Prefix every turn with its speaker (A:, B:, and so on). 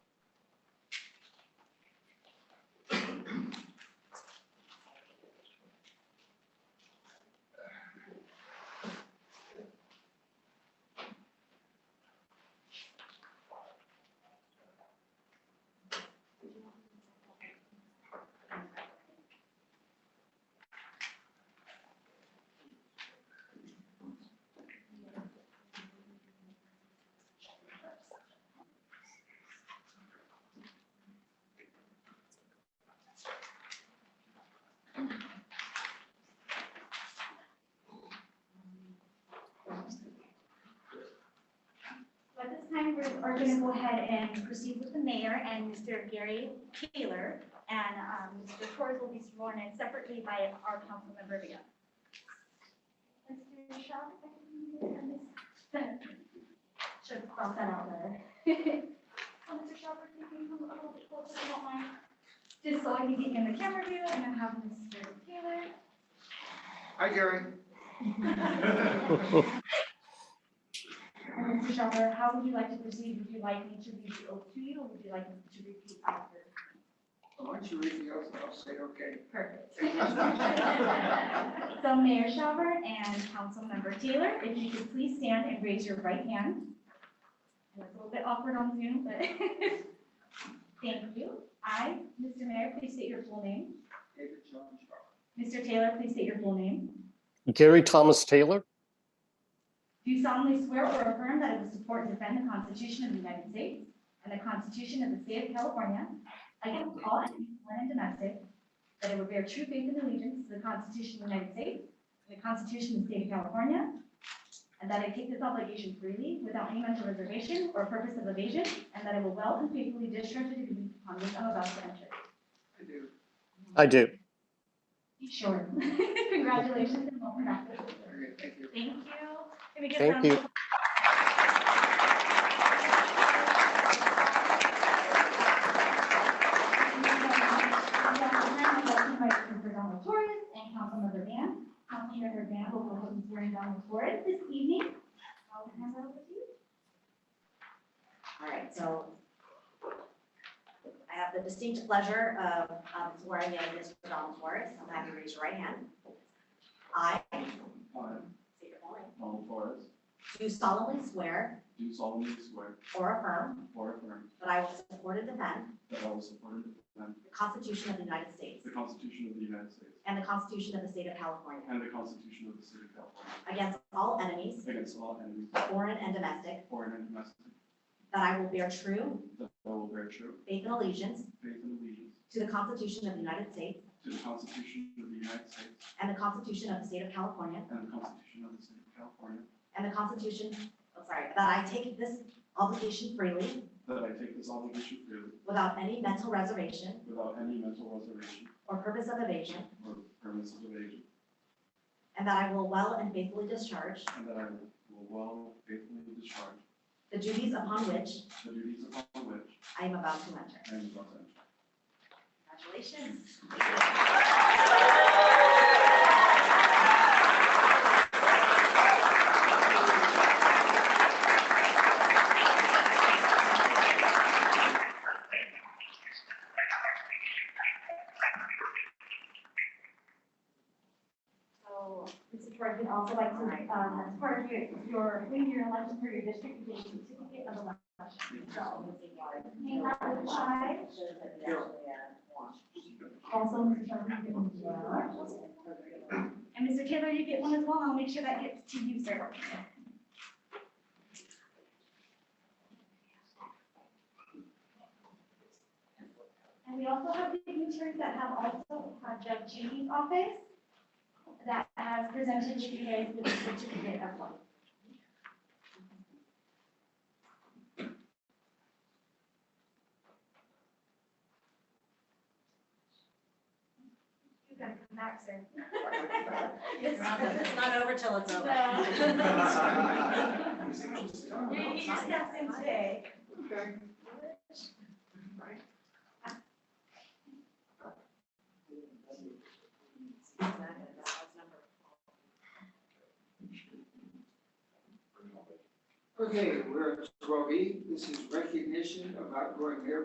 A: are going to go ahead and proceed with the mayor and Mr. Gary Taylor. And um, Mr. Torres will be sworn in separately by our council member Vega. Mr. Shaw, if I can get on this. Should cross that out there. So, Mr. Oh, Shaw, if you can come a little bit closer, if you don't mind. Just so I can get in the camera view and then have Mr. Taylor
B: Hi, Gary.
A: And Mr. Shelter, how would you like to proceed? Would you like me to read the oath to you, or would you like me to repeat after?
B: Why don't you read the oath and I'll say, okay.
A: Perfect. So Mayor Shelter and Councilmember Taylor, if you could please stand and raise your right hand. I know It's a little bit awkward on Zoom, but thank you. I, Mr. Mayor, please state your full name.
B: David John Shaw.
A: Mr. Taylor, please state your full name.
C: Gary Thomas Taylor,
A: Do you solemnly swear or affirm that I will support and defend the Constitution of the United States and the Constitution of the State of California against all enemies, foreign and domestic, that I will bear true faith and allegiance to the Constitution of the United States and the Constitution of the State of California, and that I take this obligation freely without any mental reservation or purpose of evasion, and that I will well and faithfully discharge the duties upon which I'm about to enter.
B: I do.
C: I do.
A: Sure. Congratulations and welcome back.
B: Very good, thank you.
A: Thank you. Can we get
C: Thank
A: round
C: you.
A: of Councilmember Donald Torres and Councilmember Van. Councilmember Van will go ahead and swear in Donald Torres this evening. I'll hand that over to you.
D: All right, so I have the distinct pleasure of um, swearing in Mr. Donald Torres. I'm happy to raise your right hand. I,
E: I,
D: state your full name,
E: Donald Torres,
D: do solemnly swear
E: do solemnly swear
D: or affirm
E: or affirm
D: that I will support and defend
E: that I will support and defend
D: the Constitution of the United States
E: the Constitution of the United States
D: and the Constitution of the State of California
E: and the Constitution of the State of California
D: against all enemies,
E: against all enemies,
D: foreign and domestic,
E: foreign and domestic,
D: that I will bear true
E: that I will bear true
D: faith and allegiance
E: faith and allegiance
D: to the Constitution of the United States
E: to the Constitution of the United States
D: and the Constitution of the State of California
E: and the Constitution of the State of California,
D: And the Constitution, I'm sorry, that I take this obligation freely,
E: that I take this obligation freely
D: without any mental reservation
E: without any mental reservation
D: or purpose of evasion,
E: or permissive evasion,
D: and that I will well and faithfully discharge
E: and that I will well faithfully discharge
D: the duties upon which
E: the duties upon which
D: I am about to enter.
E: I am about to enter.
D: Congratulations.
A: So, Mr. Torres, we'd also like to, um, as part of your, your, when you're elected for your district, you get a certificate of election. So, hang out with Shai. Also, Mr. Shelby, you get one as well. And Mr. Taylor, you get one as well. I'll make sure that gets to you, sir. And we also have signatures that have also had Judge Judy's office that has presented to you guys with a certificate of one. You gotta come back, sir.
D: It's not- it's not over till it's
B: No.
D: over.
A: You're gonna get your steps in today.
B: Okay. Okay, we're at twelve E. This is recognition of outgoing mayor